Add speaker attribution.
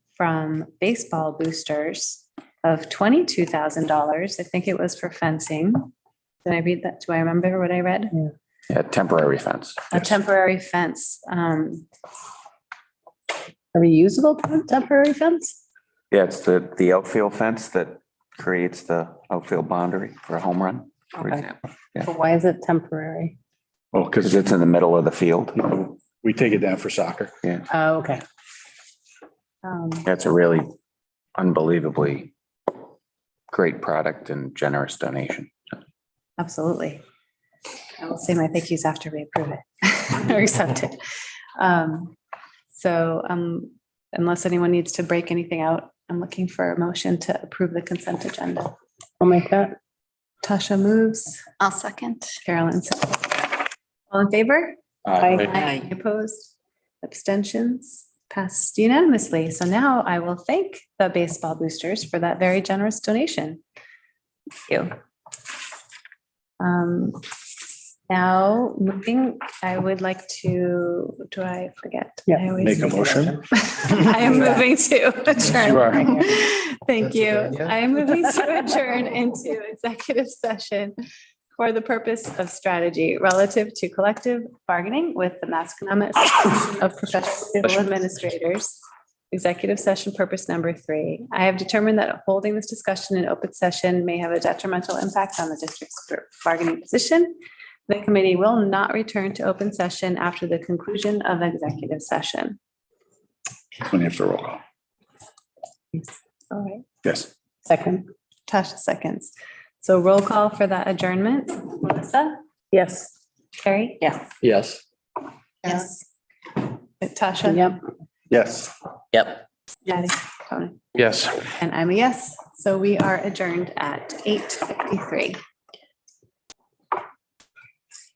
Speaker 1: from baseball boosters of twenty-two thousand dollars. I think it was for fencing. Did I read that? Do I remember what I read?
Speaker 2: Yeah, temporary fence.
Speaker 1: A temporary fence. Um,
Speaker 3: A reusable temporary fence?
Speaker 2: Yeah, it's the, the outfield fence that creates the outfield boundary for a home run, for
Speaker 3: Okay.
Speaker 2: example.
Speaker 3: But why is it temporary?
Speaker 4: Well,
Speaker 2: Because
Speaker 4: because
Speaker 2: it's in the middle of the field.
Speaker 4: Oh, we take it down for soccer.
Speaker 3: Oh, okay.
Speaker 1: um,
Speaker 2: That's a really unbelievably great product and generous donation.
Speaker 1: Absolutely. I will say my thank yous after we approve it or accept it. Um, So um, unless anyone needs to break anything out, I'm looking for a motion to approve the consent agenda.
Speaker 3: I'll make that.
Speaker 1: Tasha moves,
Speaker 5: I'll second.
Speaker 1: Carolyn seconds. All in favor?
Speaker 3: Aye.
Speaker 5: Aye.
Speaker 1: Opposed? Abstentions? Passed unanimously. So now I will thank the baseball boosters for that very generous donation. Thank you. Um, Now, moving, I would like to, do I forget?
Speaker 3: Yeah.
Speaker 1: I always
Speaker 4: Make a
Speaker 1: forget.
Speaker 4: motion.
Speaker 1: I am moving to
Speaker 4: you are.
Speaker 1: adjourn. Thank
Speaker 6: That's a
Speaker 1: you.
Speaker 6: good idea.
Speaker 1: I am moving to adjourn into executive session for the purpose of strategy relative to collective bargaining with the Masconomet Association of Professional Civil Administrators. Executive session purpose number three. I have determined that holding this discussion in open session may have a detrimental impact on the district's bargaining position. The committee will not return to open session after the conclusion of executive session.
Speaker 4: When you have to roll call.
Speaker 1: All right.
Speaker 4: Yes.
Speaker 3: Second.
Speaker 1: Tasha seconds. So roll call for that adjournment. Melissa?
Speaker 3: Yes.
Speaker 1: Carrie?
Speaker 3: Yes.
Speaker 6: Yes.
Speaker 1: Yes. Tasha?
Speaker 3: Yep.
Speaker 4: Yes.
Speaker 6: Yep.
Speaker 1: Patty, Tony.
Speaker 6: Yes.
Speaker 1: And I'm a yes. So we are adjourned at eight fifty-three.